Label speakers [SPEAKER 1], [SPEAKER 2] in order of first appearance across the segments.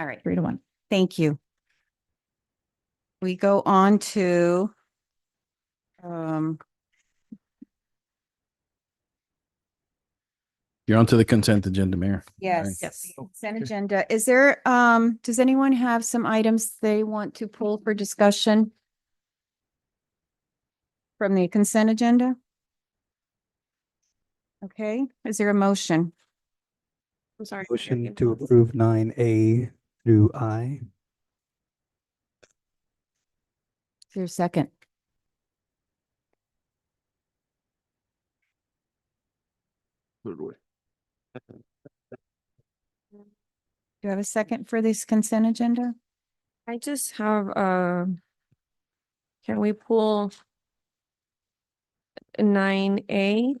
[SPEAKER 1] All right,
[SPEAKER 2] three to one.
[SPEAKER 1] thank you. We go on to um,
[SPEAKER 3] You're onto the consent agenda, Mayor.
[SPEAKER 1] yes,
[SPEAKER 2] Yes.
[SPEAKER 1] the consent agenda. Is there, um, does anyone have some items they want to pull for discussion? From the consent agenda? Okay, is there a motion?
[SPEAKER 4] I'm sorry. Mary,
[SPEAKER 5] Motion
[SPEAKER 4] again.
[SPEAKER 5] to approve nine A through I.
[SPEAKER 1] Is there a second? Do you have a second for this consent agenda?
[SPEAKER 4] I just have, uh, can we pull nine A?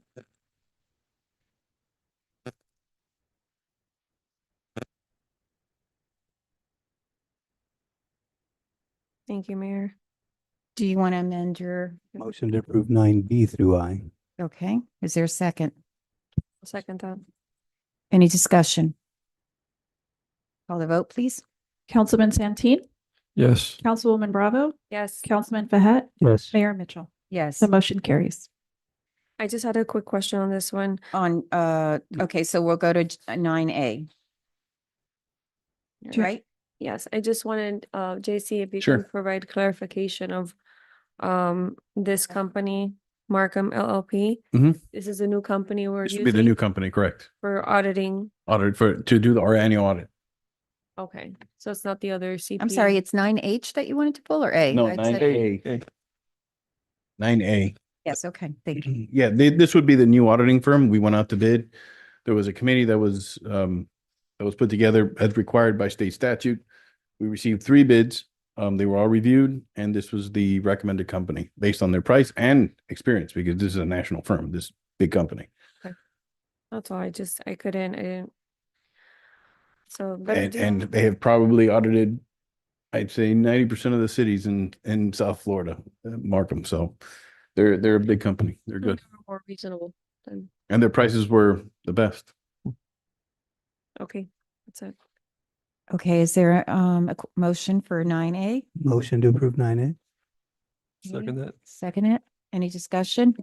[SPEAKER 4] Thank you, Mayor.
[SPEAKER 1] Do you want to amend your,
[SPEAKER 5] Motion to approve nine B through I.
[SPEAKER 1] okay, is there a second?
[SPEAKER 4] I'll Second that.
[SPEAKER 1] Any discussion? Call the vote, please.
[SPEAKER 2] Councilman Santeen,
[SPEAKER 3] Yes.
[SPEAKER 2] Councilwoman Bravo,
[SPEAKER 4] Yes.
[SPEAKER 2] Councilman Fahet,
[SPEAKER 5] Yes.
[SPEAKER 2] Mayor Mitchell.
[SPEAKER 1] Yes.
[SPEAKER 2] The motion carries.
[SPEAKER 4] I just had a quick question on this one.
[SPEAKER 1] On, uh, okay, so we'll go to uh, nine A,
[SPEAKER 4] Right.
[SPEAKER 1] right?
[SPEAKER 4] Yes, I just wanted, uh, JC, if you
[SPEAKER 3] Sure.
[SPEAKER 4] can provide clarification of, um, this company, Markham LLP.
[SPEAKER 3] Mhm.
[SPEAKER 4] This is a new company we're
[SPEAKER 3] This would be the new
[SPEAKER 4] using
[SPEAKER 3] company, correct?
[SPEAKER 4] for auditing.
[SPEAKER 3] Audit for, to do the- our annual audit.
[SPEAKER 4] Okay, so it's not the other CPA.
[SPEAKER 1] I'm sorry, it's nine H that you wanted to pull or A? I said-
[SPEAKER 3] Nine A.
[SPEAKER 1] Yes, okay, thank you.
[SPEAKER 3] Yeah, they, this would be the new auditing firm. We went out to bid. There was a committee that was, um, that was put together as required by state statute. We received three bids. Um, they were all reviewed and this was the recommended company based on their price and experience because this is a national firm, this big company.
[SPEAKER 4] That's all, I just, I couldn't, I didn't. So. but I
[SPEAKER 3] And,
[SPEAKER 4] do-
[SPEAKER 3] and they have probably audited, I'd say ninety percent of the cities in, in South Florida, uh, Markham. So they're, they're a big company. They're
[SPEAKER 4] They're
[SPEAKER 3] good.
[SPEAKER 4] More reasonable than,
[SPEAKER 3] And their prices were the best.
[SPEAKER 4] okay, that's it.
[SPEAKER 1] Okay, is there, um, a qu- motion for nine A?
[SPEAKER 5] Motion to approve nine A.
[SPEAKER 1] Second that. Second it. Any discussion?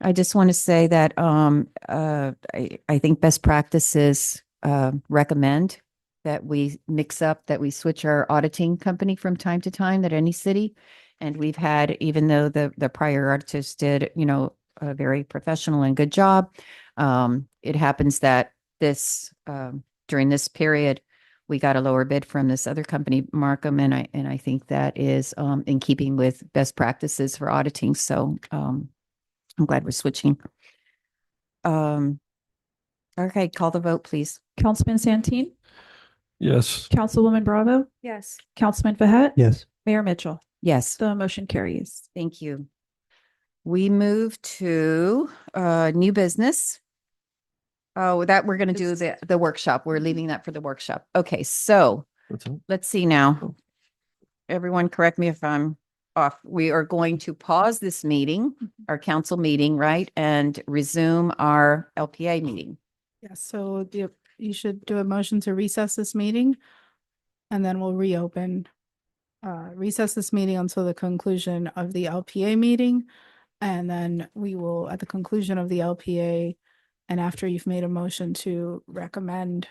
[SPEAKER 1] I just want to say that um uh I I think best practices uh recommend that we mix up, that we switch our auditing company from time to time at any city. And we've had, even though the the prior auditors did, you know, a very professional and good job. Um, it happens that this um during this period, we got a lower bid from this other company, Markham, and I, and I think that is um in keeping with best practices for auditing, so um I'm glad we're switching. Um, okay, call the vote, please.
[SPEAKER 2] Councilman Santeen,
[SPEAKER 6] Yes,
[SPEAKER 2] Councilwoman Bravo,
[SPEAKER 4] Yes,
[SPEAKER 2] Councilman Fahet,
[SPEAKER 5] Yes.
[SPEAKER 2] Mayor Mitchell.
[SPEAKER 1] Yes,
[SPEAKER 2] The motion carries.
[SPEAKER 1] thank you. We move to uh new business. Oh, that we're gonna do the the workshop. We're leaving that for the workshop. Okay, so
[SPEAKER 6] that's all.
[SPEAKER 1] let's see now. Everyone, correct me if I'm off. We are going to pause this meeting, our council meeting, right? And resume our LPA meeting.
[SPEAKER 7] Yes, so the, you should do a motion to recess this meeting. And then we'll reopen, uh, recess this meeting until the conclusion of the LPA meeting. And then we will, at the conclusion of the LPA, and after you've made a motion to recommend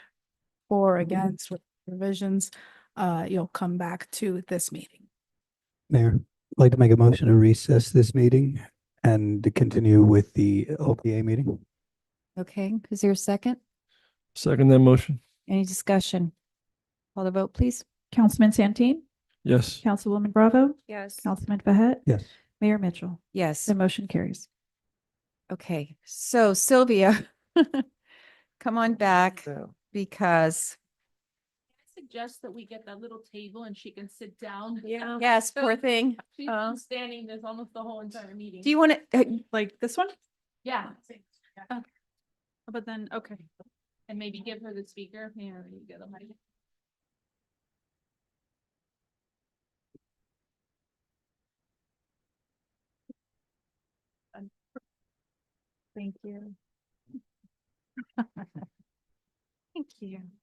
[SPEAKER 7] or against with revisions, uh, you'll come back to this meeting.
[SPEAKER 5] Mayor, I'd like to make a motion to recess this meeting and to continue with the LPA meeting.
[SPEAKER 1] Okay, is there a second?
[SPEAKER 6] Second that motion.
[SPEAKER 1] Any discussion? Call the vote, please.
[SPEAKER 2] Councilman Santeen,
[SPEAKER 6] Yes.
[SPEAKER 2] Councilwoman Bravo,
[SPEAKER 4] yes.
[SPEAKER 2] Councilman Fahet,
[SPEAKER 5] Yes.
[SPEAKER 2] Mayor Mitchell.
[SPEAKER 1] Yes,
[SPEAKER 2] The motion carries.
[SPEAKER 1] okay. So Sylvia, come on back because,
[SPEAKER 8] I Suggest that we get that little table and she can sit down.
[SPEAKER 4] Yeah.
[SPEAKER 1] yes, poor thing.
[SPEAKER 8] She's
[SPEAKER 1] Uh,
[SPEAKER 8] been standing this almost the whole entire meeting.
[SPEAKER 1] Do you want to,
[SPEAKER 7] uh, Like this one? Oh,
[SPEAKER 8] Yeah.
[SPEAKER 7] But then, okay.
[SPEAKER 8] And maybe give her the speaker, Yeah, there you go, the mic.
[SPEAKER 7] Thank you.
[SPEAKER 1] Thank you.